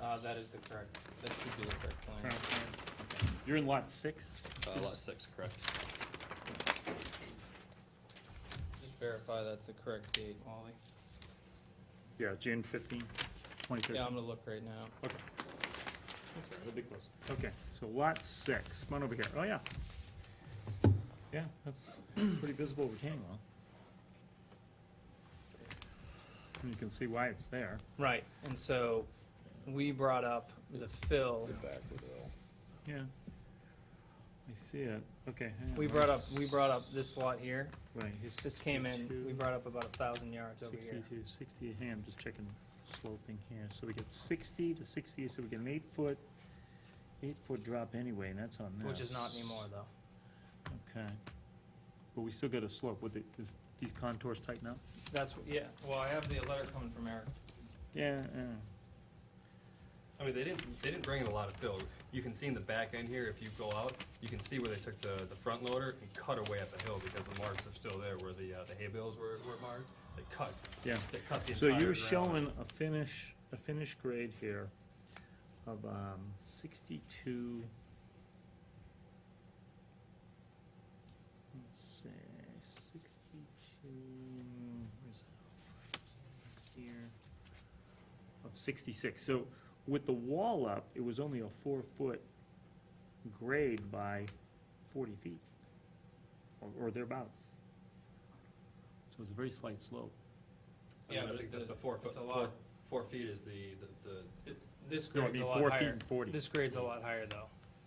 Uh, that is the correct, that should be the correct line. Current plan. You're in lot six? Uh, lot six, correct. Just verify that's the correct date, Wally. Yeah, June 15, 2013. Yeah, I'm gonna look right now. Okay. Okay, so lot six, come on over here, oh, yeah. Yeah, that's pretty visible over Kingwell. And you can see why it's there. Right, and so we brought up the fill. Yeah. I see it, okay. hang on, We brought up, we brought up this lot here. Wait, he's This came in, we 62, brought up about a thousand yards over here. Sixty-two, sixty, hey, I'm just checking sloping here, so we get sixty to sixty, so we get an eight-foot, eight-foot drop anyway, and that's on this. Which is not anymore though. Okay. But we still got a slope, would it, is these contours tighten up? That's, yeah, well, I have the letter coming from Eric. Yeah, I mean, they didn't, they didn't bring in a lot of fill. You can see in the back end here, if you go out, you can see where they took the, the front loader and cut away up the hill because the marks are still there where the, uh, the hay bales were, were marked. They cut, yeah. they cut the So entire you're ground. showing a finish, a finish grade here of, um, sixty-two. Let's see, sixty-two, where's that? Here. Of sixty-six, so with the wall up, it was only a four-foot grade by forty feet, or, or thereabouts. So it's a very slight slope. I Yeah, mean, I but think the- that the four it's foot, a four, lot. four feet is the, the- the, Th- This No, I grade's mean, a lot four feet higher. and forty This grade's a lot higher though,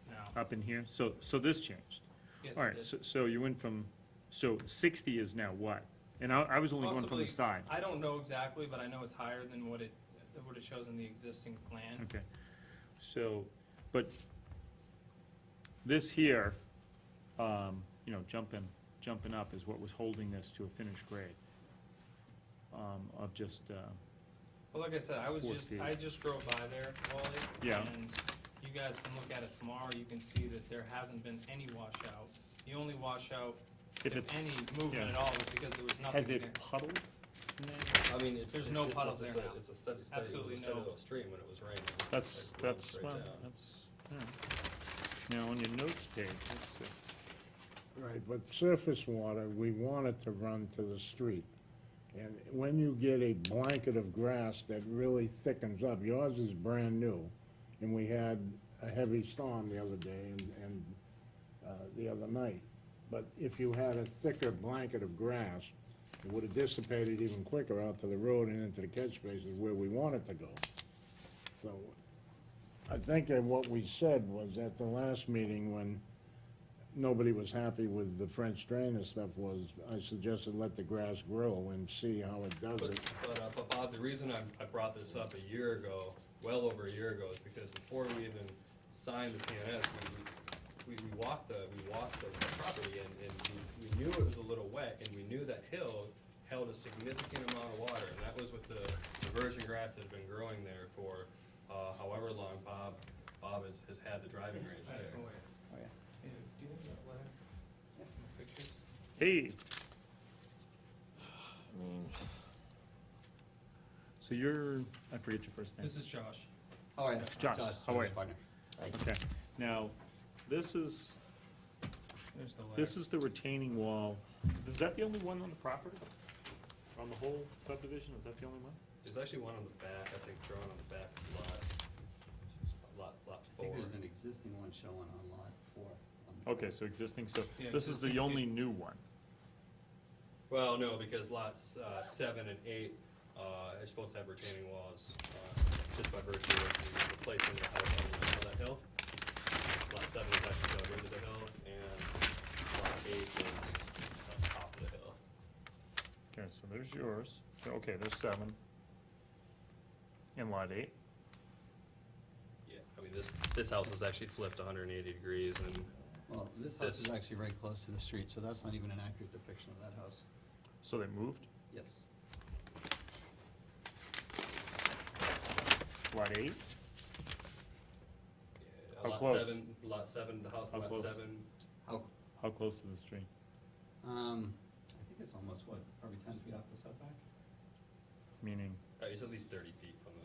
now. up in here, so, so this changed. Yes, All it right, did. so, so you went from, so sixty is now what? And I, I was only going from Possibly- the side. I don't know exactly, but I know it's higher than what it, than what it shows in the existing plan. Okay, so, but this here, um, you know, jumping, jumping up is what was holding this to a finished grade. Um, of just, uh, Well, like I said, I was Four just, feet. I just drove by there, Wally. Yeah. And you guys can look at it tomorrow, you can see that there hasn't been any washout. The only washout, if if it's, any movement yeah. at all, was because there was nothing has there. it puddled? in there? I mean, it's. There's it's- no it's a- puddles there it's a- now. It's a steady, steady, it was Absolutely a steady no- little stream when it was raining. That's, Like, rolls that's, right well, down. that's, yeah. Now, on your notes page, let's see. Right, but surface water, we want it to run to the street. And when you get a blanket of grass that really thickens up, yours is brand new, and we had a heavy storm the other day and, and, uh, the other night. But if you had a thicker blanket of grass, it would have dissipated even quicker out to the road and into the catch spaces where we want it to go. So, I think that what we said was at the last meeting when nobody was happy with the French drain and stuff was, I suggested let the grass grow and see how it does But, it. but, uh, but Bob, the reason I, I brought this up a year ago, well over a year ago, is because before we even signed the PNS, we, we, we walked the, we walked the the property and, and we, we knew it was a little wet, and we knew that hill held a significant amount of water, and that was with the, the virgin grass that had been growing there for, uh, however long Bob, Bob has, has had the driving range I there. don't know where. Oh, Yeah, Oh, Do you have that letter? Pictures? Hey. So you're, I forget your first name. This is Josh. All right, Josh, how are you? partner. Okay, now, this is, There's the letter. this is the retaining wall. Is that the only one on the property? On the whole subdivision, is that the only one? There's actually one on the back, I think drawn on the back of the lot, lot, lot I four. think there's an existing one showing on lot four. Um, on the- Okay, so existing, so Yeah, this is the existing. only new one. Well, no, because lots uh, seven and eight uh, are supposed to have retaining walls, uh, just by virtue of the place in the house on the on that hill. Lot seven is actually down here to the hill, and lot eight is on top of the hill. Okay, so there's yours. So, Okay, there's seven. And lot eight. Yeah, I mean, this, this house was actually flipped hundred and eighty degrees, and Well, this house This. is actually very close to the street, so that's not even an accurate depiction of that house. So they moved. Yes, Lot eight, yeah, How lot close? seven, lot seven, the house How on lot close? seven, how, how close to the stream? um, I think it's almost what, probably ten feet off the setback? Meaning, uh, it's at least thirty feet